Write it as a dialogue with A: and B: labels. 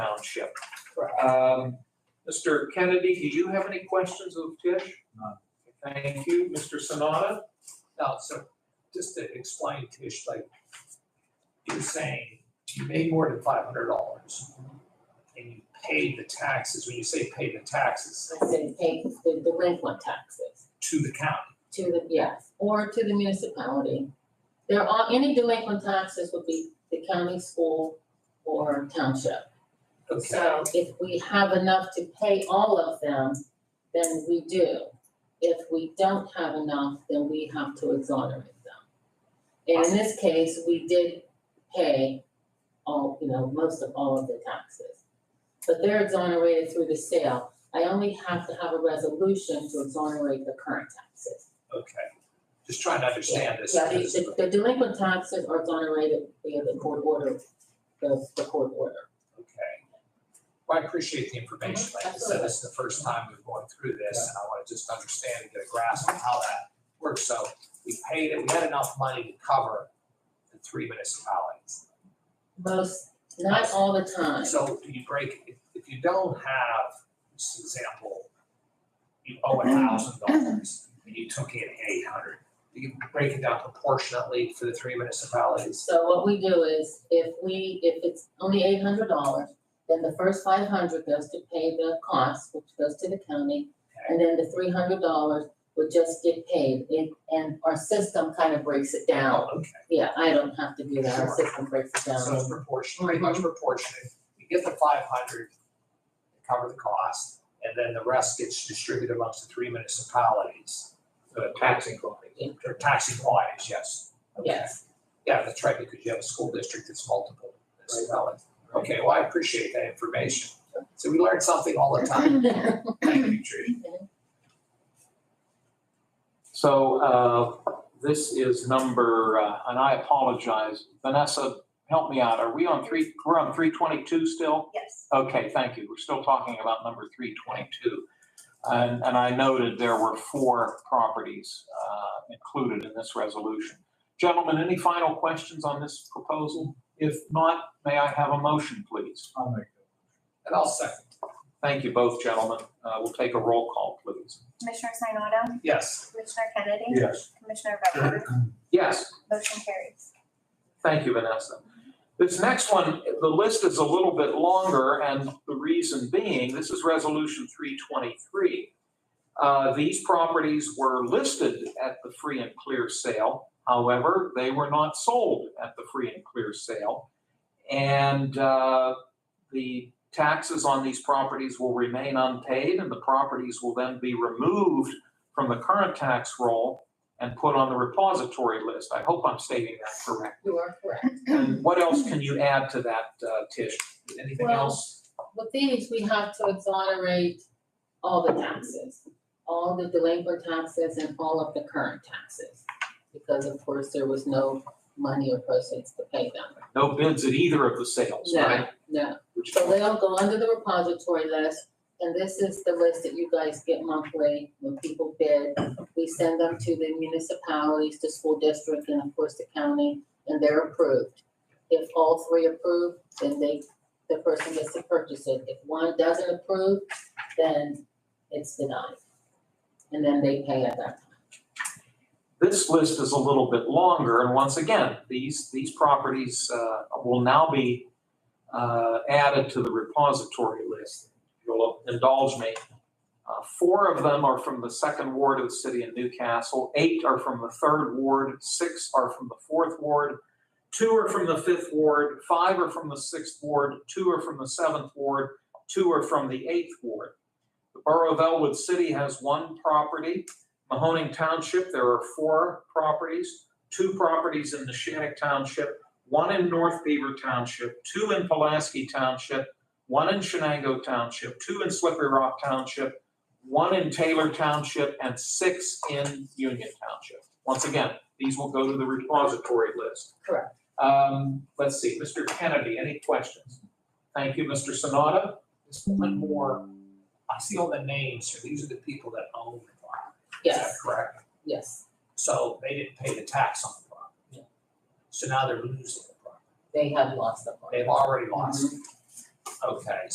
A: Township. Um, Mr. Kennedy, did you have any questions of Tish?
B: None.
A: Thank you. Mr. Sanada? Now, so just to explain, Tish, like you're saying, you made more than five hundred dollars and you paid the taxes. When you say pay the taxes
C: I said, pay the delinquent taxes
A: to the county,
C: to the, yes, or to the municipality. There are, any delinquent taxes would be the county, school, or township.
A: okay?
C: So if we have enough to pay all of them, then we do. If we don't have enough, then we have to exonerate them. And in this case, we did pay all, you know, most of all of the taxes. But they're exonerated through the sale. I only have to have a resolution to exonerate the current taxes.
A: Okay. Just trying to understand this.
C: Yeah, the, the delinquent taxes are exonerated via the court order, the, the court order.
A: Okay. Well, I appreciate the information. Like I said, this is the first time we've gone through this, and I want to just understand and get a grasp of how that works. So we paid it, we had enough money to cover the three municipalities.
C: Most, not all the time.
A: So do you break, if- if you don't have, this example, you owe a thousand dollars and you took in eight hundred, do you break it down proportionately for the three municipalities?
C: So what we do is, if we, if it's only eight hundred dollars, then the first five hundred goes to pay the cost, which goes to the county. And then the three hundred dollars would just get paid, and, and our system kind of breaks it down.
A: Okay.
C: Yeah, I don't have to do that, our system breaks it
A: So it's
C: down.
A: proportional, pretty much proportionate. You get the five hundred, cover the cost, and then the rest gets distributed amongst the three municipalities. The taxing
C: Yeah.
A: companies. Or taxing bodies, yes. Okay.
C: Yes,
A: Yeah, that's right, because you have a school district that's multiple municipalities. Okay, well, I appreciate that information. So we learn something all the time. Thank you, Trish.
B: So uh, this is number, uh, and I apologize, Vanessa, help me out. Are we on three, we're on 322 still?
D: Yes.
B: Okay, thank you. We're still talking about number 322. And, and I noted there were four properties uh, included in this resolution. Gentlemen, any final questions on this proposal? If not, may I have a motion, please?
E: I'll make
A: And I'll second,
B: Thank you both, gentlemen. Uh, We'll take a roll call, please.
D: Commissioner Sinata,
A: yes.
D: Commissioner Kennedy.
E: it. Yes.
D: Commissioner Redford,
B: Yes.
D: motion carries.
B: Thank you, Vanessa. This next one, the list is a little bit longer, and the reason being, this is Resolution 323. Uh, These properties were listed at the free and clear sale. However, they were not sold at the free and clear sale. And uh, the taxes on these properties will remain unpaid, and the properties will then be removed from the current tax roll and put on the repository list. I hope I'm stating that correctly.
C: you are correct.
B: And what else can you add to that, uh, Tish? Anything
C: Well-
B: else?
C: With these, we have to exonerate all the taxes, all the delinquent taxes and all of the current taxes. Because of course, there was no money or proceeds to pay them.
B: No bids at either of the sales,
C: No,
B: right?
C: no,
B: Which-
C: so they'll go under the repository list, and this is the list that you guys get monthly when people bid. We send them to the municipalities, the school district, and of course the county, and they're approved. If all three approve, then they, the person gets to purchase it. If one doesn't approve, then it's denied. And then they pay at that time.
B: This list is a little bit longer, and once again, these, these properties, uh, will now be, uh, added to the repository list. You'll indulge me. Uh, four of them are from the second ward of the city of Newcastle, eight are from the third ward, six are from the fourth ward, two are from the fifth ward, five are from the sixth ward, two are from the seventh ward, two are from the eighth ward. The borough of Elwood City has one property. Mahoning Township, there are four properties, two properties in Nishannick Township, one in North Beaver Township, two in Pulaski Township, one in Shenango Township, two in Slippery Rock Township, one in Taylor Township, and six in Union Township. Once again, these will go to the repository list.
C: Correct.
B: Um, let's see, Mr. Kennedy, any questions? Thank you, Mr. Sonata.
A: Just one more, I see all the names here, these are the people that own the property. Is that
C: Yes,
A: correct?
C: yes,
A: So they didn't pay the tax on the
C: Yeah.
A: property. So now they're losing the property.
C: they have lost the money.
A: They've already lost. it. Mm-hmm. Okay,